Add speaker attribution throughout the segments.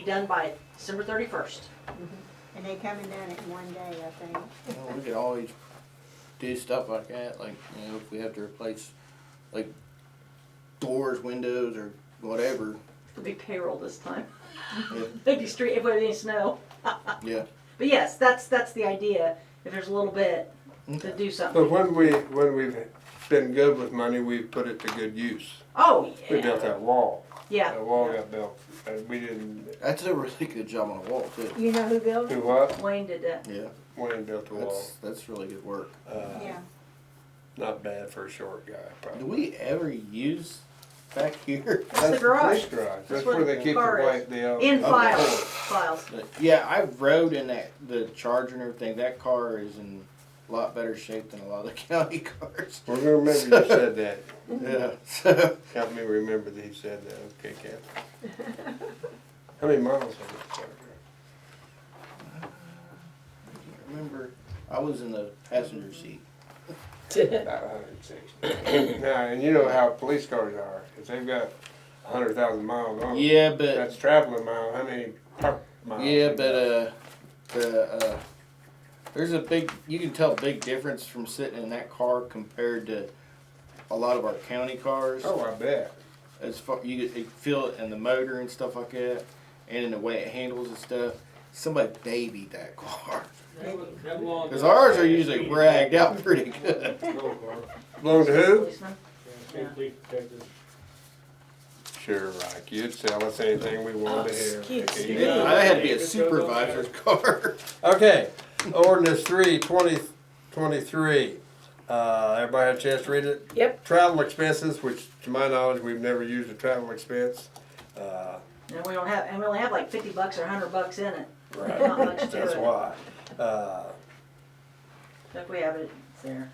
Speaker 1: be done by December thirty-first.
Speaker 2: And they coming down it in one day, I think.
Speaker 3: Well, we could always do stuff like that, like, you know, if we have to replace, like, doors, windows, or whatever,
Speaker 1: It'll be payroll this time.
Speaker 3: Yeah.
Speaker 1: It'd be street, if it needs snow.
Speaker 3: yeah.
Speaker 1: But yes, that's, that's the idea, if there's a little bit, to do
Speaker 4: But
Speaker 1: something.
Speaker 4: when we, when we've been good with money, we've put it to good use.
Speaker 1: Oh,
Speaker 4: We built
Speaker 1: yeah,
Speaker 4: that wall. That wall
Speaker 1: yeah.
Speaker 4: got built, and we didn't,
Speaker 3: That's a really good job on the wall, too.
Speaker 2: You know who built
Speaker 4: do
Speaker 2: it?
Speaker 4: what?
Speaker 1: Wayne did that.
Speaker 3: Yeah,
Speaker 4: Wayne built the wall.
Speaker 3: that's, that's really good work.
Speaker 4: Uh,
Speaker 2: Yeah.
Speaker 4: Not bad for a short guy,
Speaker 3: Do
Speaker 4: probably.
Speaker 3: we ever use back here?
Speaker 1: That's the garage.
Speaker 4: police garage.
Speaker 1: That's
Speaker 4: That's
Speaker 1: where
Speaker 4: where they
Speaker 1: the
Speaker 4: keep the
Speaker 1: car is.
Speaker 4: white, the. uh,
Speaker 1: In
Speaker 4: the
Speaker 1: files,
Speaker 4: cord.
Speaker 1: files.
Speaker 3: But, yeah, I rode in that, the Charger and everything. That car is in a lot better shape than a lot of the county cars.
Speaker 4: We're gonna remember you said that.
Speaker 3: Yeah, so,
Speaker 4: Help me remember that he said that. Okay, Kathy. How many miles have you covered?
Speaker 3: remember, I was in the passenger seat.
Speaker 4: About hundred and sixty. Now, and you know how police cars are. If they've got a hundred thousand miles on them.
Speaker 3: Yeah, but.
Speaker 4: That's traveling mile, how many park miles?
Speaker 3: Yeah, but uh, the uh, there's a big you can tell a big difference from sitting in that car compared to a lot of our county cars.
Speaker 4: Oh, I bet.
Speaker 3: As far you could you feel it in the motor and stuff like that, and in the way it handles and stuff. Somebody babied that car because ours are usually ragged out pretty good.
Speaker 4: Belong to who?
Speaker 1: Policeman.
Speaker 4: Sure, Rock, you'd sell us anything we wanted to hear.
Speaker 5: Excuse
Speaker 4: Okay.
Speaker 5: me. Yeah.
Speaker 3: I had to be a supervisor's car.
Speaker 4: Okay, ordinance three, twenty, twenty-three. Uh, everybody had a chance to read it?
Speaker 5: Yep.
Speaker 4: Travel expenses, which to my knowledge, we've never used a travel expense. Uh,
Speaker 1: And we don't have, and we only have like fifty bucks or hundred bucks in it. Not
Speaker 4: right,
Speaker 1: much to it.
Speaker 4: that's why. Uh,
Speaker 1: If we have it, it's there.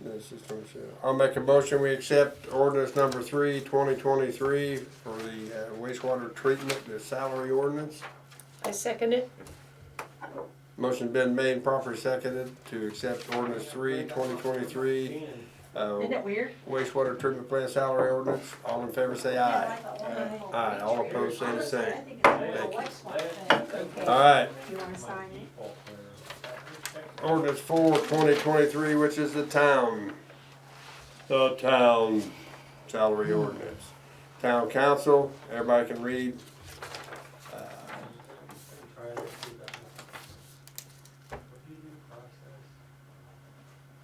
Speaker 4: This is from Sarah. I'll make a motion, we accept ordinance number three, twenty twenty-three for the uh, wastewater treatment, the salary ordinance.
Speaker 5: I second it.
Speaker 4: Motion been made, and properly seconded to accept ordinance three, twenty twenty-three, uh,
Speaker 1: Isn't it weird?
Speaker 4: wastewater treatment plant salary ordinance. All in favor, say aye. Aye, all opposed, say the same. Thank you. All right,
Speaker 2: You wanna sign it?
Speaker 4: ordinance four, twenty twenty-three, which is the town, the town salary ordinance. Town council, everybody can read. Uh,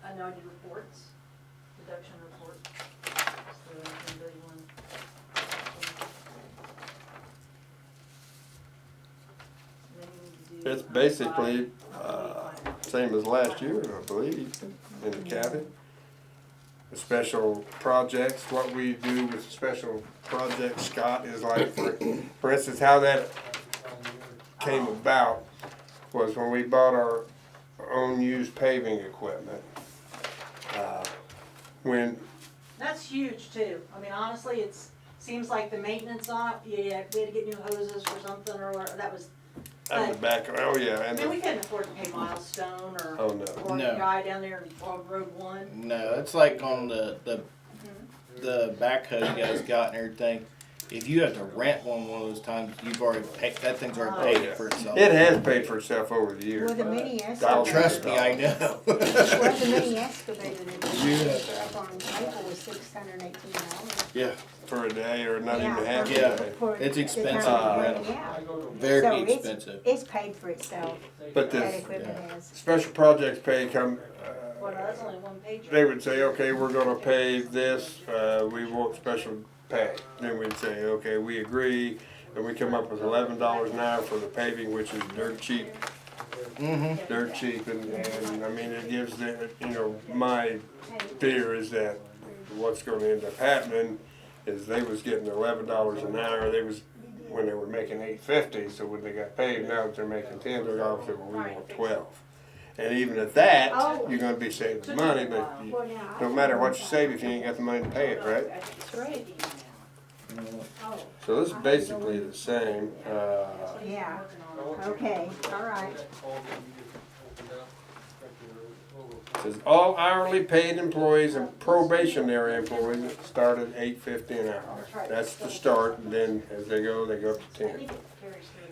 Speaker 1: Unaudited reports, deduction report.
Speaker 4: It's basically, uh, same as last year, I believe, in the county. The special projects, what we do with special projects, Scott, is like, for, for instance, how that came about was when we bought our own used paving equipment. Uh, When,
Speaker 1: That's huge too. I mean, honestly, it's, seems like the maintenance on, it, yeah, we had to get new hoses for something or, whatever. that was,
Speaker 4: and the back, oh yeah,
Speaker 1: I
Speaker 4: and
Speaker 1: mean, we
Speaker 4: the,
Speaker 1: couldn't afford to pay milestone or,
Speaker 4: oh no,
Speaker 1: or
Speaker 3: No.
Speaker 1: guy down there on Road One.
Speaker 3: No, it's like on the the
Speaker 2: Mm-hmm.
Speaker 3: the backhoe you guys got and everything. If you have to rent one one of those times, you've already paid. That thing's
Speaker 2: Oh,
Speaker 3: already paid for itself.
Speaker 4: it has paid for itself over the years.
Speaker 2: Well, the mini
Speaker 4: Donald
Speaker 2: excavator,
Speaker 3: Trust me, I know.
Speaker 2: well, the mini excavator that they
Speaker 3: Yeah.
Speaker 2: put up on Maple was six hundred and eighteen dollars.
Speaker 3: yeah,
Speaker 4: for a day or not even half a
Speaker 3: Yeah.
Speaker 4: day.
Speaker 3: It's expensive
Speaker 4: to
Speaker 2: Yeah.
Speaker 3: rent 'em.
Speaker 2: Yeah,
Speaker 3: very
Speaker 2: So it's-
Speaker 3: expensive.
Speaker 2: it's paid for itself, that
Speaker 4: But the
Speaker 2: equipment has.
Speaker 4: special projects pay come,
Speaker 1: Well,
Speaker 4: uh,
Speaker 1: that's only one page.
Speaker 4: they would say, okay, we're gonna pay this, uh, we want special pay. Then we'd say, okay, we agree, and we come up with eleven dollars an hour for the paving, which is dirt cheap,
Speaker 3: Mm-hmm.
Speaker 4: dirt cheap, and, and, I mean, it gives the, you know, my fear is that what's gonna end up happening is they was getting eleven dollars an hour, they was, when they were making eight fifty, so when they got paid, now that they're making ten, they're off, well, we want twelve. And even at that, you're gonna be saving money, but you-
Speaker 2: Well, now, I
Speaker 4: no matter what you save, if you ain't got the money to pay it, right?
Speaker 5: That's right. Oh.
Speaker 4: So this is basically the same, uh,
Speaker 2: Yeah, okay, all right.
Speaker 4: it says all hourly paid employees and probationary employees start at eight fifty an hour. That's the start, and then as they go, they go up to ten.
Speaker 1: Carries through.